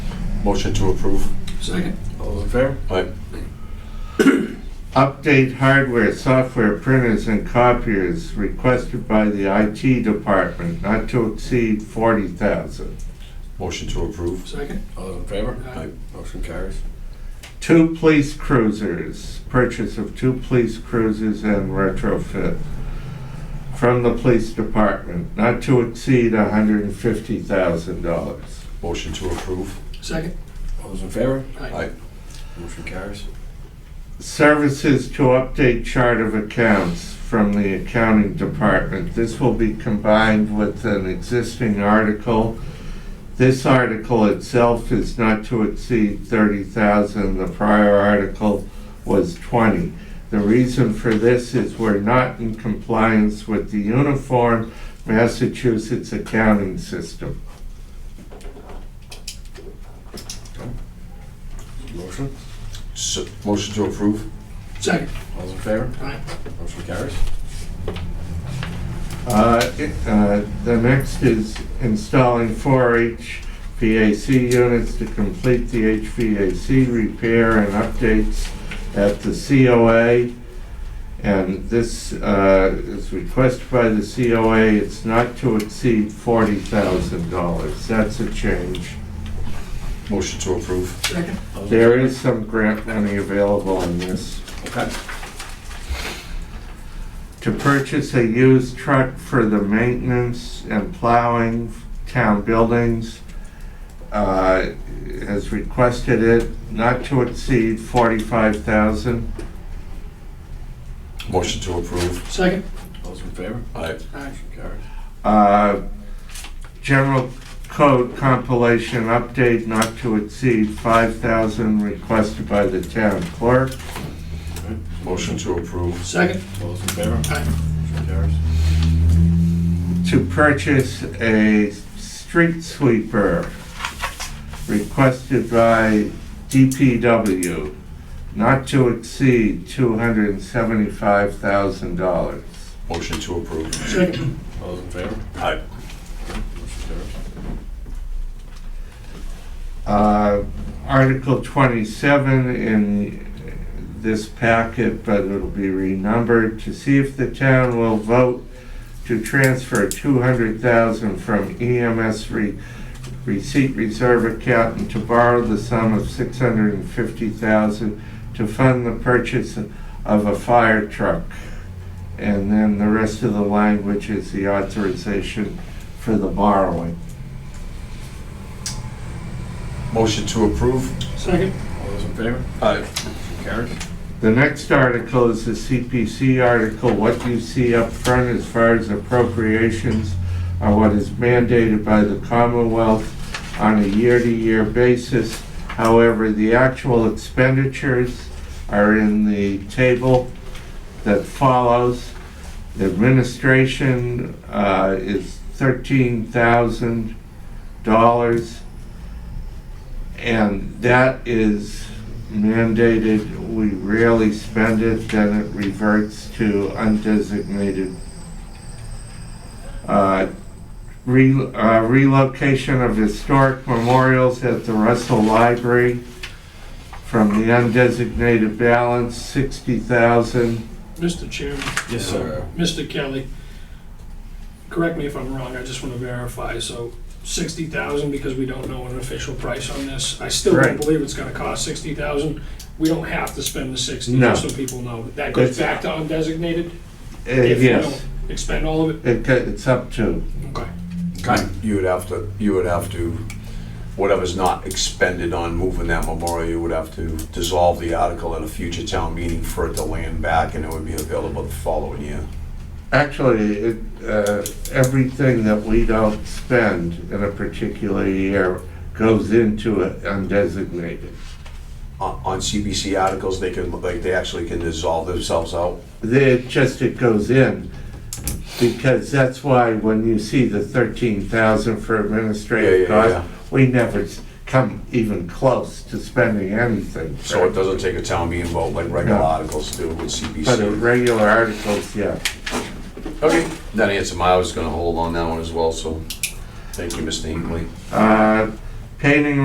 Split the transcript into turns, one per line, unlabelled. Motion to approve.
Second. All in favor?
Aye.
Update hardware, software, printers, and copiers requested by the IT department not to exceed forty thousand.
Motion to approve.
Second. All in favor?
Aye.
Motion carries.
Two police cruisers, purchase of two police cruisers and retrofit from the police department not to exceed hundred and fifty thousand dollars.
Motion to approve.
Second. All those in favor?
Aye.
Motion carries.
Services to update chart of accounts from the accounting department. This will be combined with an existing article. This article itself is not to exceed thirty thousand, the prior article was twenty. The reason for this is we're not in compliance with the Uniform Massachusetts Accounting System.
Motion.
S- Motion to approve.
Second. All those in favor? Aye. Motion carries.
Uh, it- uh, The next is installing four HVAC units to complete the HVAC repair and updates at the COA. And this uh, is requested by the COA, it's not to exceed $40,000. That's a change.
Motion to approve.
Second. All those in
There
favor?
is some grant money available in this.
Okay.
to purchase a used truck for the maintenance and plowing of town buildings. uh, Has requested it not to exceed forty-five thousand.
Motion to approve.
Second. All those in favor?
Aye.
Motion carries.
Uh, General code compilation update not to exceed five thousand requested by the town clerk.
Motion to approve.
Second. All those in favor? Aye. Motion carries.
to purchase a street sweeper requested by DPW not to exceed $275,000.
Motion to approve.
Second. All those in favor?
Aye.
Motion carries.
Uh, Article 27 in this packet, but it'll be renumbered, to see if the town will vote to transfer 200,000 from EMS re- receipt reserve account and to borrow the sum of 650,000 to fund the purchase of a fire truck. And then the rest of the language is the authorization for the borrowing.
Motion to approve.
Second. All those in favor?
Aye.
Motion carries.
The next article is the CPC article, what you see up front as far as appropriations are what is mandated by the Commonwealth on a year-to-year basis. However, the actual expenditures are in the table that follows. The Administration uh, is thirteen thousand dollars. And that is mandated, we rarely spend it, then it reverts to undesignated. Uh, re- uh, Relocation of historic memorials at the Russell Library from the undesignated balance, sixty thousand.
Mr. Chairman,
Yes, sir.
Mr. Kelly, correct me if I'm wrong, I just want to verify, so sixty thousand, because we don't know an official price on this, I still don't
Right.
believe it's gonna cost sixty thousand. We don't have to spend the sixty,
No.
just so people know, that goes back to undesignated? if we
uh, Yes,
don't Expend all of it?
it, co- it's up to,
Okay,
Uh, Okay.
You would have to, you would have to, whatever's not expended on moving that memorial, you would have to dissolve the article at a future town meeting for it to land back and it would be available the following year.
actually, it, uh, everything that we don't spend in a particular year goes into it undesignated.
On on CBC articles, they can, like, they actually can dissolve themselves out.
It just, it goes in, because that's why when you see the thirteen thousand for administrative
Yeah, yeah, yeah,
costs, we never s- come even close to spending anything.
So it doesn't take a town meeting vote like regular
No.
articles do with
But the
CBC.
regular articles, yeah.
Okay, that answered my, I was gonna hold on that one as well, so thank you, Mr. Hinckley.
Uh, Painting